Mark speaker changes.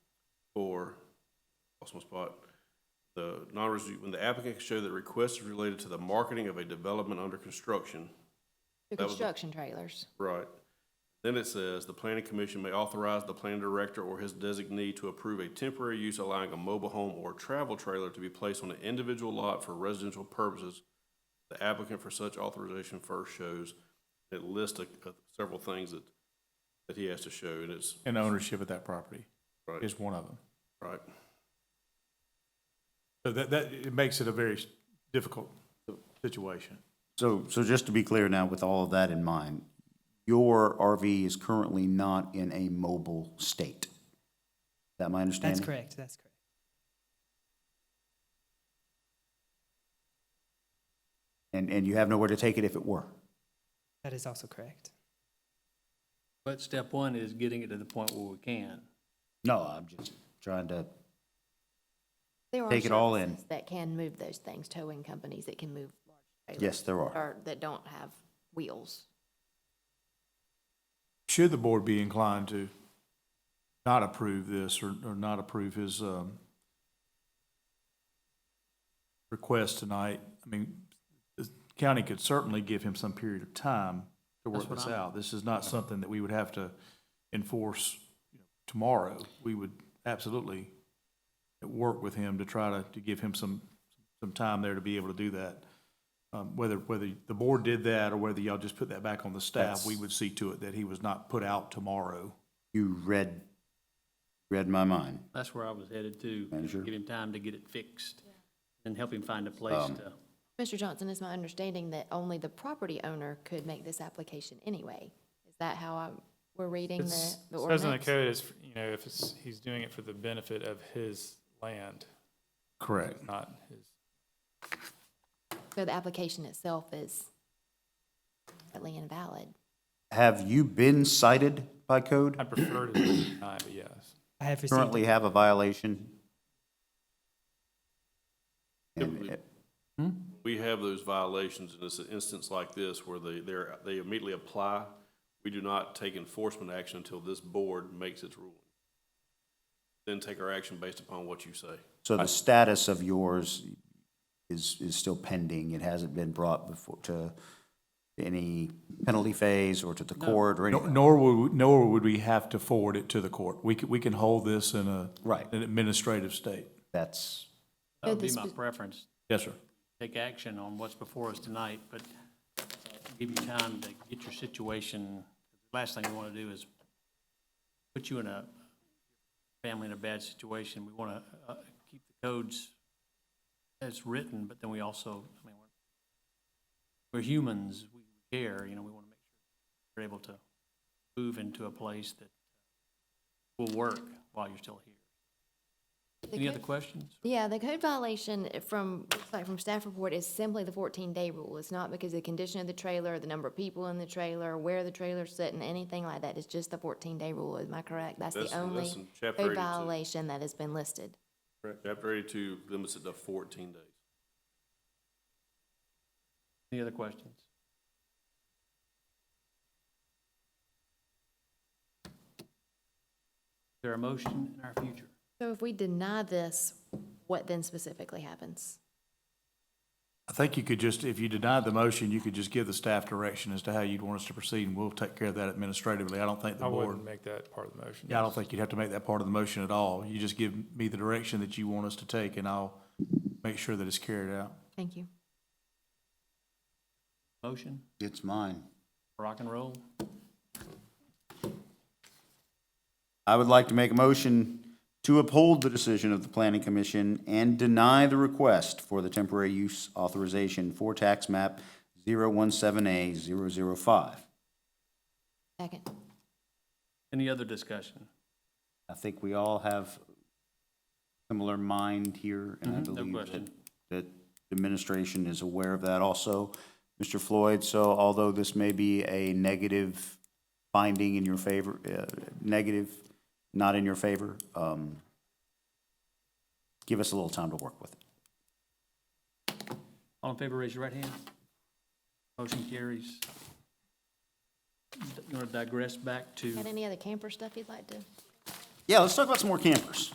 Speaker 1: lost my spot. The non-resu, when the applicant can show that request is related to the marketing of a development under construction,
Speaker 2: The
Speaker 1: That was the-
Speaker 2: construction trailers.
Speaker 1: right? Then it says, the planning commission may authorize the planning director or his designee to approve a temporary use allowing a mobile home or travel trailer to be placed on an individual lot for residential purposes. The applicant for such authorization first shows, it lists a- a- several things that, that he has to show, and it's,
Speaker 3: and ownership of that property
Speaker 1: Right.
Speaker 3: is one of them.
Speaker 1: right?
Speaker 3: So that, that, it makes it a very s- difficult situation.
Speaker 4: So, so just to be clear now, with all of that in mind, your RV is currently not in a mobile state. Is that my understanding?
Speaker 5: That's correct, that's correct.
Speaker 4: And, and you have nowhere to take it if it were?
Speaker 5: That is also correct.
Speaker 6: But step one is getting it to the point where we can.
Speaker 4: No, I'm just trying to,
Speaker 2: There are
Speaker 4: Take it all in.
Speaker 2: services That can move those things, towing companies that can move large trailers.
Speaker 4: yes, there are.
Speaker 2: Or that don't have wheels.
Speaker 3: Should the board be inclined to not approve this or, or not approve his, um, request tonight, I mean, the county could certainly give him some period of time to work
Speaker 6: That's what
Speaker 3: this
Speaker 6: I'm-
Speaker 3: out. This is not something that we would have to enforce you know, tomorrow. We would absolutely work with him to try to, to give him some, some time there to be able to do that. Um, whether, whether the board did that or whether y'all just put that back on the staff,
Speaker 4: That's-
Speaker 3: we would see to it that he was not put out tomorrow.
Speaker 4: You read, read my mind.
Speaker 6: That's where I was headed to,
Speaker 4: Manager?
Speaker 6: give him time to get it fixed and help him find a place
Speaker 4: Um,
Speaker 6: to.
Speaker 2: Mr. Johnson, it's my understanding that only the property owner could make this application anyway. Is that how I, we're reading the,
Speaker 7: It's-
Speaker 2: the
Speaker 7: it Says in the
Speaker 2: ordinance?
Speaker 7: code is, you know, if it's, he's doing it for the benefit of his land,
Speaker 3: Correct.
Speaker 7: not his.
Speaker 2: So the application itself is completely invalid.
Speaker 4: Have you been cited by code?
Speaker 7: I prefer to deny, but yes.
Speaker 5: I have received,
Speaker 4: Currently have a violation? And
Speaker 1: Typically-
Speaker 4: it-
Speaker 1: we have those violations in this instance like this where they, they're, they immediately apply. We do not take enforcement action until this board makes its ruling. Then take our action based upon what you say.
Speaker 4: So the status of yours is, is still pending? It hasn't been brought before to any penalty phase or to the court or
Speaker 3: Nor-
Speaker 4: anything?
Speaker 3: Nor would, nor would we have to forward it to the court. We can, we can hold this in a.
Speaker 4: Right.
Speaker 3: An administrative state.
Speaker 4: That's,
Speaker 6: That would uh, be
Speaker 2: this
Speaker 6: my
Speaker 2: was-
Speaker 6: preference,
Speaker 3: Yes, sir.
Speaker 6: take action on what's before us tonight, but give you time to get your situation. Last thing we want to do is put you in a family in a bad situation. We want to keep the codes as written, but then we also, I mean, we're, we're humans, we care, you know, we want to make sure we're able to move into a place that will work while you're still here.
Speaker 2: The
Speaker 6: Any other
Speaker 2: code-
Speaker 6: questions?
Speaker 2: Yeah, the code violation eh, from, looks like from staff report is simply the fourteen day rule. It's not because of the condition of the trailer, the number of people in the trailer, where the trailer's sitting, anything like that. It's just the fourteen day rule. Am I correct? That's
Speaker 1: That's-
Speaker 2: the
Speaker 1: that's
Speaker 2: only
Speaker 1: in chapter
Speaker 2: code
Speaker 1: 82.
Speaker 2: violation that has been listed.
Speaker 1: Chapter eighty-two limits it to fourteen days.
Speaker 6: Any other questions? Is there a motion in our future?
Speaker 2: So if we deny this, what then specifically happens?
Speaker 3: I think you could just, if you denied the motion, you could just give the staff direction as to how you'd want us to proceed, and we'll take care of that administratively. I don't think the
Speaker 7: I
Speaker 3: board,
Speaker 7: wouldn't make that part of the motion.
Speaker 3: yeah, I don't think you'd have to make that part of the motion at all. You just give me the direction that you want us to take, and I'll make sure that it's carried out.
Speaker 2: Thank you.
Speaker 6: Motion,
Speaker 4: it's mine.
Speaker 6: rock and roll?
Speaker 4: I would like to make a motion to uphold the decision of the planning commission and deny the request for the temporary use authorization for tax map 017A005.
Speaker 2: Second.
Speaker 6: Any other discussion?
Speaker 4: I think we all have similar mind here, and I
Speaker 6: Mhm, no
Speaker 4: believe that,
Speaker 6: question.
Speaker 4: that the administration is aware of that also. Mr. Floyd, so although this may be a negative finding in your favor, uh, negative, not in your favor, um, give us a little time to work with it.
Speaker 6: All in favor, raise your right hand. Motion carries. You want to digress back to?
Speaker 2: Got any other camper stuff you'd like to?
Speaker 4: Yeah, let's talk about some more campers.